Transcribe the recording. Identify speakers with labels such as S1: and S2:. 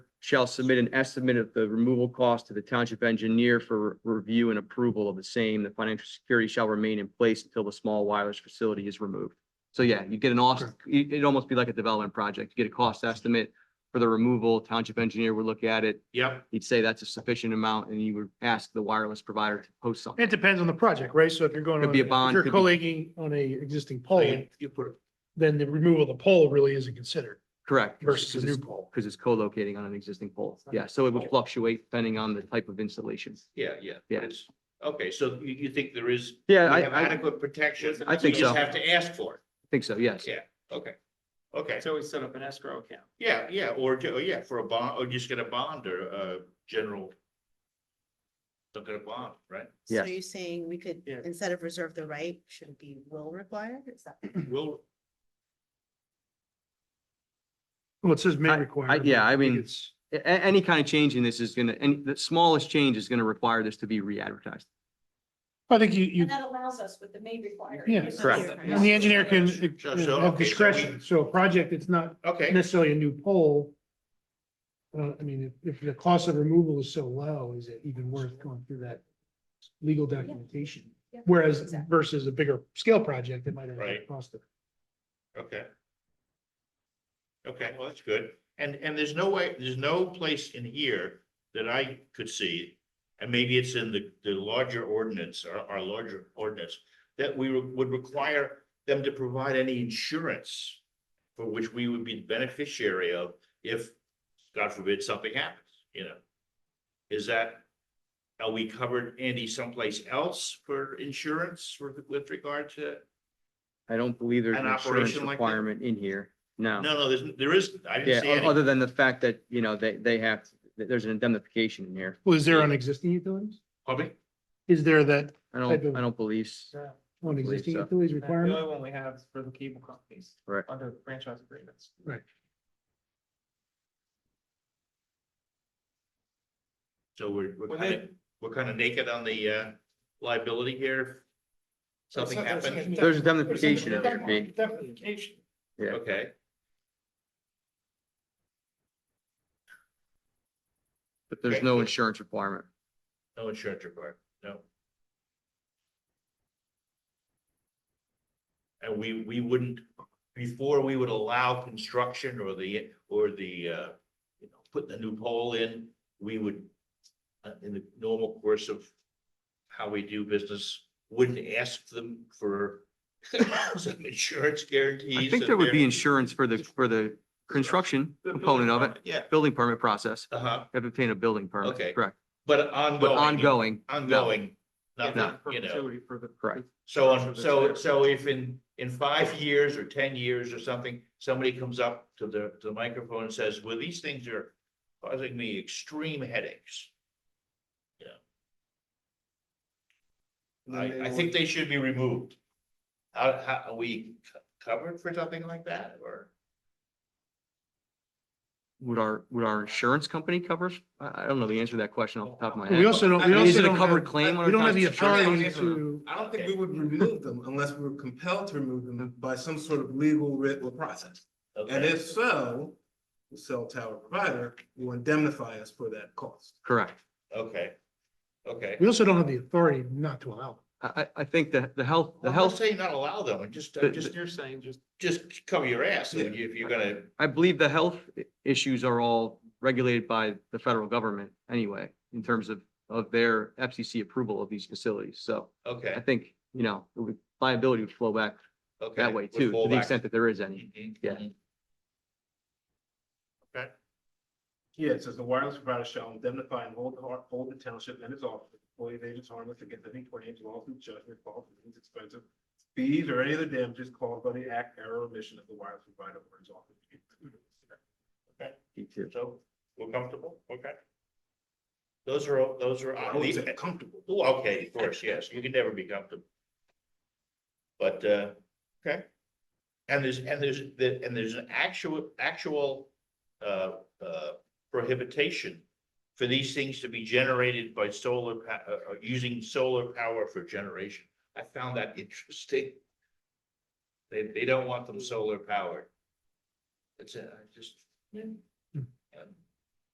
S1: shall submit an estimate of the removal cost to the township engineer for review and approval of the same. The financial security shall remain in place until the small wireless facility is removed. So yeah, you get an cost, it'd almost be like a development project. You get a cost estimate for the removal. Township engineer would look at it.
S2: Yep.
S1: He'd say that's a sufficient amount and you would ask the wireless provider to post something.
S3: It depends on the project, right? So if you're going.
S1: Could
S3: on
S1: be a
S3: if
S1: bond,
S3: You're
S1: could be-
S3: collating on a existing
S2: So
S3: pole,
S2: you- You put,
S3: then the removal of the pole really isn't considered
S1: Correct.
S3: versus a
S1: Because
S3: new
S1: it's-
S3: pole.
S1: Because it's co-locating on an existing pole. Yeah, so it would fluctuate depending on the type of installation.
S2: yeah, yeah.
S1: Yeah.
S2: It's, okay, so you, you think there is, we
S1: Yeah, I,
S2: have
S1: I
S2: adequate protection?
S1: I think
S2: You just
S1: so.
S2: have to ask for
S1: think so, yes.
S2: Yeah. it. Okay. Okay,
S4: So we set up an escrow account.
S2: yeah, yeah, or, ju- oh, yeah, for a bond, or just get a bond or a general. Look at a bond, right?
S5: So
S1: Yes.
S5: you're saying we could,
S4: Yeah.
S5: instead of reserve the right, should it be will require? Is that?
S4: Mm-hmm.
S2: Will,
S3: Well, it says may
S1: I- I-
S3: require. but
S1: yeah, I
S3: think
S1: mean-
S3: it's-
S1: A- a- any kind of change in this is gonna, and the smallest change is gonna require this to be re-advertised.
S3: I think you, you,
S6: And that allows us with the may require.
S3: Yeah.
S6: because
S1: Correct.
S6: that's-
S3: and the engineer can
S2: So-
S3: uh,
S2: so,
S3: have
S2: okay, so we-
S3: discretion. So a project, it's not
S2: okay,
S3: necessarily a new pole. Uh, I mean, if, if the cost of removal is so low, is it even worth going through that legal documentation?
S6: Yeah.
S3: Whereas
S6: Exactly.
S3: versus a bigger scale project, it might have a
S2: Right.
S3: cost of.
S2: okay. Okay, well, that's good. And, and there's no way, there's no place in here that I could see. And maybe it's in the, the larger ordinance, our, our larger ordinance, that we re- would require them to provide any insurance. For which we would be the beneficiary of if, God forbid, something happens, you know? Is that, are we covered, Andy, someplace else for insurance with, with regard to?
S1: I don't believe there's an
S2: An
S1: insurance
S2: operation like that?
S1: requirement in here. No.
S2: No, no, there's, there is, I
S1: Yeah,
S2: didn't see
S1: o-
S2: any.
S1: other than the fact that, you know, they, they have, that there's an indemnification in here.
S3: Well, is there on existing utilities?
S2: Public?
S3: Is there that
S1: I
S3: Type
S1: don't,
S3: of-
S1: I don't believe, s-
S3: on
S1: believe
S3: existing
S1: so.
S3: utilities
S4: The only
S3: requirement?
S4: one we have is for the cable companies.
S1: Correct.
S4: Under franchise agreements.
S2: So we're, we're
S4: Well,
S2: kind of, we're kind of naked on the uh, liability here. if Something happened,
S1: there's indemnification in there, Pete.
S4: Indemnification.
S1: yeah.
S2: okay.
S1: but there's
S2: Okay.
S1: no insurance requirement.
S2: No insurance required, no. And we, we wouldn't, before we would allow construction or the, or the, uh, you know, putting a new pole in, we would, uh, in the normal course of how we do business, wouldn't ask them for some insurance guarantees.
S1: I think
S2: and
S1: there would be
S2: their-
S1: insurance for the, for the construction
S2: The building
S1: component of it,
S2: permit, Yeah,
S1: building permit process.
S2: uh-huh,
S1: Have obtained a building permit,
S2: Okay.
S1: correct?
S2: but ongoing.
S1: But ongoing,
S2: Ongoing,
S4: Yeah,
S2: nothing,
S4: for
S2: you know.
S4: perpetuity For the.
S1: Correct.
S2: So,
S4: Sure,
S2: on-
S4: that's
S2: so,
S4: fair.
S2: so if in, in five years or ten years or something, somebody comes up to the, to the microphone and says, well, these things are causing me extreme headaches. You know. I, I think they should be removed. How, how, are we co- covered for something like that or?
S1: would our, would our insurance company covers? I, I don't know the answer to that question off the top of my head.
S3: We also don't, we
S1: I mean, is
S3: also
S1: it a
S3: don't
S1: covered
S3: have-
S1: claim on
S3: We don't
S1: our
S3: have the
S1: constitution?
S3: authority to,
S7: I don't think we would remove them unless we were compelled to remove them by some sort of legal writ or process. And
S2: Okay,
S7: if so, the cell tower provider will indemnify us for that cost.
S1: Correct.
S2: okay, okay.
S3: we also don't have the authority not to allow.
S1: I, I, I think the, the health, the
S2: I'm not
S1: health,
S2: saying not allow them, I'm just,
S1: The-
S2: I'm just,
S4: You're saying just.
S2: just cover your ass if you- if you're gonna,
S1: I believe the health i- issues are all regulated by the federal government anyway, in terms of, of their FCC approval of these facilities. So I
S2: okay,
S1: think, you know, it would- liability would flow back
S2: okay.
S1: that way
S2: would
S1: too, to
S2: fall
S1: the
S2: back.
S1: extent that there is any.
S2: Mhm,
S1: Yeah.
S2: mhm. Okay.
S7: Yeah, it says the wireless provider shall indemnify and hold, har- hold the township and its office, employees, agents harmless against any claims, lawsuit, judgment, false, liens, expensive fees, or any of the damages caused by the act, error, or omission of the wireless provider or its office.
S1: Me too.
S2: So we're comfortable, okay? Those are, all- those are,
S7: I
S2: I
S7: always
S2: leave
S7: say
S2: it.
S7: comfortable.
S2: Oh, okay, of course, yes, you can never be comfortable. But, uh, okay. And there's, and there's, the- and there's an actual, actual, uh, uh, prohibition for these things to be generated by solar, pa- uh, uh, using solar power for generation. I found that interesting. They, they don't want them solar powered. It's, uh, I just. yeah.